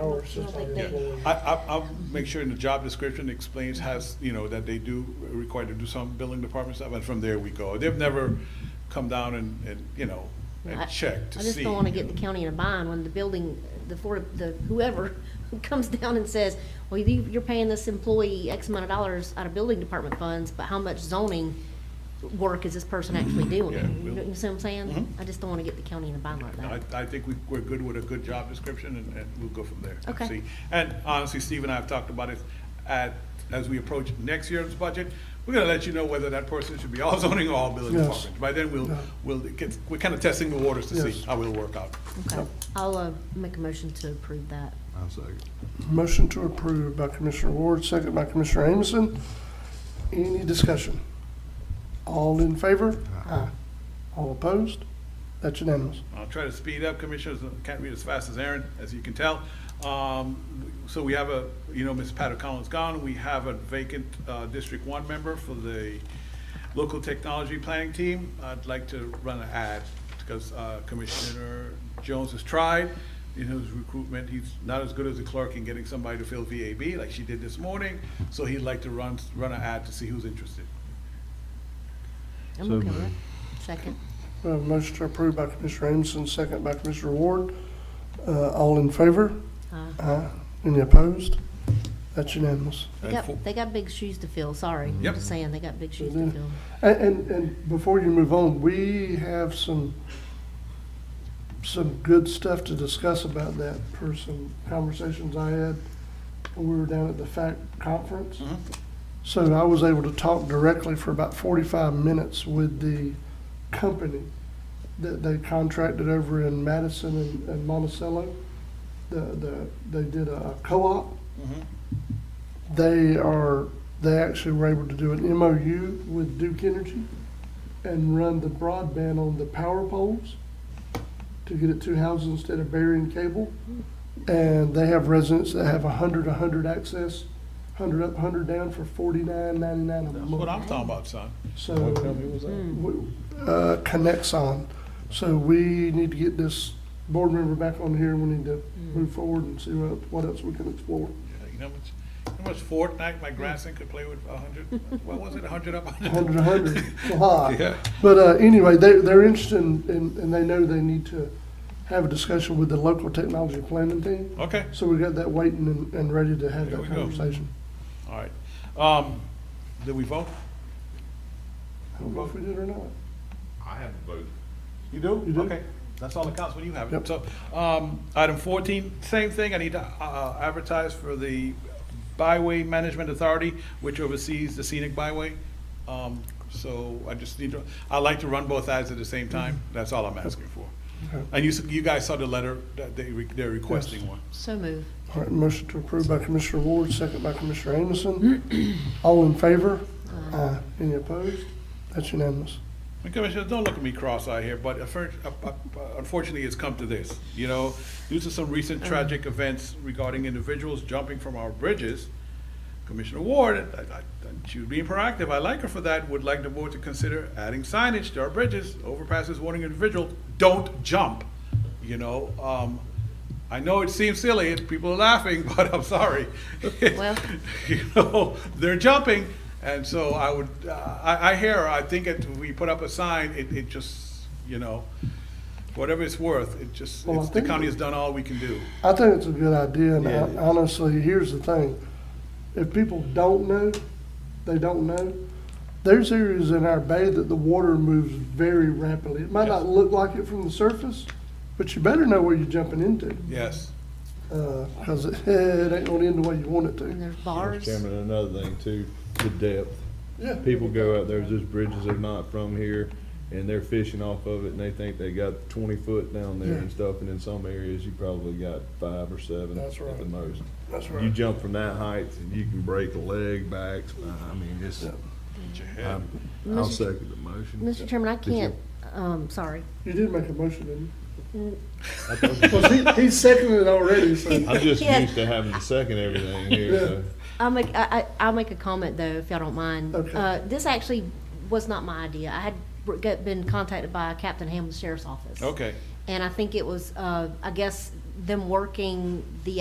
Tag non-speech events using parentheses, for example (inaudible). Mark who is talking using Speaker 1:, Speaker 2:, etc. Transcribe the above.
Speaker 1: Our system
Speaker 2: Yeah.
Speaker 1: is really-
Speaker 2: I, I, I'll make sure in the job description explains has, you know, that they do require to do some building department stuff, and from there we go. They've never come down and, and, you know,
Speaker 3: I-
Speaker 2: and checked to
Speaker 3: I
Speaker 2: see.
Speaker 3: just don't wanna
Speaker 2: you
Speaker 3: get
Speaker 2: know.
Speaker 3: the county in a bind when the building, the for, the whoever (laughs) comes down and says, well, you, you're paying this employee X amount of dollars out of building department funds, but how much zoning work is this person
Speaker 2: (clears throat)
Speaker 3: actually doing?
Speaker 2: Yeah,
Speaker 3: You
Speaker 2: we'll-
Speaker 3: know what I'm
Speaker 2: Mhm.
Speaker 3: saying? I just don't wanna get the county in a bind like
Speaker 2: I,
Speaker 3: that.
Speaker 2: I think we, we're good with a good job description, and, and we'll go from there. and
Speaker 3: Okay.
Speaker 2: see. And honestly, Steve and I have talked about it, at, as we approach next year's budget, we're gonna let you know whether that person should be all (laughs) zoning or all building
Speaker 1: Yes.
Speaker 2: department. By then, we'll,
Speaker 1: Yeah.
Speaker 2: we'll, get- we're kinda testing the waters to see
Speaker 1: Yes.
Speaker 2: how it'll work out.
Speaker 3: Okay, I'll, uh, make a motion to approve that.
Speaker 4: I'll second.
Speaker 1: Motion to approve by Commissioner Ward, second by Commissioner Amison. Any discussion? All in favor? Aye. All opposed? That's unanimous.
Speaker 2: I'll try to speed up, commissioners, can't read as fast as Aaron, as you can tell. Um, So we have a, you know, Ms. Pat O'Connell's gone, we have a vacant uh, District One member for the local technology planning team. I'd like to run an ad, because uh, Commissioner Jones has tried in his recruitment, he's not as good as a clerk in getting somebody to fill VAB, like she did this morning, so he'd like to run, run an ad to see who's interested.
Speaker 3: I'm
Speaker 4: So
Speaker 3: okay with it.
Speaker 4: moved.
Speaker 3: Second.
Speaker 1: We have a motion to approve by Commissioner Amison, second by Commissioner Ward. Uh, all in favor?
Speaker 3: Uh,
Speaker 1: Aye. Any opposed? That's unanimous.
Speaker 3: They
Speaker 2: And for-
Speaker 3: got, they got big shoes to fill, sorry. I'm
Speaker 2: Yep.
Speaker 3: just saying, they got big shoes
Speaker 1: do.
Speaker 3: to fill.
Speaker 1: And, and, and before you move on, we have some, some good stuff to discuss about that for some conversations I had when we were down at the FACT conference.
Speaker 2: Mhm.
Speaker 1: So I was able to talk directly for about forty-five minutes with the company that they contracted over in Madison and, and Monticello. The, the, they did a co-op
Speaker 2: Mhm.
Speaker 1: they are, they actually were able to do an MOU with Duke Energy and run the broadband on the power poles to get it to houses instead of burying cable. And they have residents that have a hundred, a hundred access, hundred up, hundred down for forty-nine ninety-nine a
Speaker 2: That's what
Speaker 1: month.
Speaker 2: I'm talking about, son.
Speaker 1: So,
Speaker 2: that?
Speaker 1: we- uh, connects on. So we need to get this board member back on here. We need to move forward and see what, what else we can explore.
Speaker 2: Yeah, You know, much, you know, much Fortnite my grandson could play with a hundred, what was it, a hundred up? a
Speaker 1: Hundred, a
Speaker 2: (laughs)
Speaker 1: hundred, it's a lot.
Speaker 2: Yeah.
Speaker 1: But uh, anyway, they, they're interested in, in- and they know they need to have a discussion with the local technology planning team.
Speaker 2: Okay,
Speaker 1: So we got that waiting and, and ready to have
Speaker 2: There
Speaker 1: that
Speaker 2: we go.
Speaker 1: conversation.
Speaker 2: all right. Um, did we vote?
Speaker 1: I don't know if we did or not.
Speaker 5: I have a vote.
Speaker 2: You do?
Speaker 1: You do.
Speaker 2: Okay, that's all that counts when you have it.
Speaker 1: Yep.
Speaker 2: So, um, item fourteen, same thing, I need to, uh, advertise for the Byway Management Authority, which oversees the scenic byway. Um, so I just need to, I like to run both ads at the same time,
Speaker 1: Mm-hmm.
Speaker 2: that's all I'm asking for.
Speaker 1: Okay.
Speaker 2: And you, s- you guys saw the letter that they, re- they're requesting one.
Speaker 3: So moved.
Speaker 1: All right, motion to approve by Commissioner Ward, second by Commissioner Amison. All in favor? Aye. Any opposed? That's unanimous.
Speaker 2: And Commissioners, don't look at me cross-eyed here, but affer- uh, uh, unfortunately, it's come to this, you know? Due to some recent tragic events regarding individuals jumping from our bridges, Commissioner Ward, I- I- she was being proactive, I like her for that, would like the board to consider adding signage to our bridges, overpasses warning individual, don't jump, you know? Um, I know it seems silly, and people are laughing, (laughs) but I'm sorry.
Speaker 3: Well-
Speaker 2: (laughs) you know, they're jumping. And so I would, uh, I, I hear, I think if we put up a sign, it, it just, you know, whatever it's worth, it just,
Speaker 1: Well, I
Speaker 2: it's, the
Speaker 1: think-
Speaker 2: county has done all we can do.
Speaker 1: I think it's a good idea, and
Speaker 4: Yeah,
Speaker 1: hon-
Speaker 4: it is.
Speaker 1: honestly, here's the thing. If people don't know, they don't know, there's areas in our bay that the water moves very rapidly. It might not
Speaker 2: Yes.
Speaker 1: look like it from the surface, but you better know where you're jumping into,
Speaker 2: Yes.
Speaker 1: because it, (laughs) it ain't gonna end the way you want it
Speaker 3: And
Speaker 1: to.
Speaker 3: there's bars.
Speaker 4: Chairman, another thing too, the depth.
Speaker 1: Yeah.
Speaker 4: People go out there, there's bridges they're not from here, and they're fishing off of it, and they think they got twenty foot down there and
Speaker 1: Yeah.
Speaker 4: stuff, and in some areas, you probably got five or seven at
Speaker 1: That's right.
Speaker 4: the most.
Speaker 1: That's
Speaker 4: You jump from that height, and you can break a leg back, I mean, it's,
Speaker 2: Get your head.
Speaker 4: I'm- I'll
Speaker 3: Mr.
Speaker 4: second the motion.
Speaker 3: Mr. Chairman, I
Speaker 4: Did you-
Speaker 3: can't, um, sorry.
Speaker 1: You did make a motion, didn't
Speaker 4: I thought-
Speaker 1: you? Well, he, he seconded it already, (laughs) so.
Speaker 3: (laughs)
Speaker 4: I'm just
Speaker 3: Yeah.
Speaker 4: used to having to second everything here,
Speaker 1: Yeah.
Speaker 4: so.
Speaker 3: I'll make, I, I- I'll make a comment though, if y'all don't mind.
Speaker 1: Okay.
Speaker 3: Uh, this actually was not my idea. I had got- been contacted by Captain Hamlin's Sheriff's Office.
Speaker 2: Okay.
Speaker 3: And I think it was, uh, I guess, them working the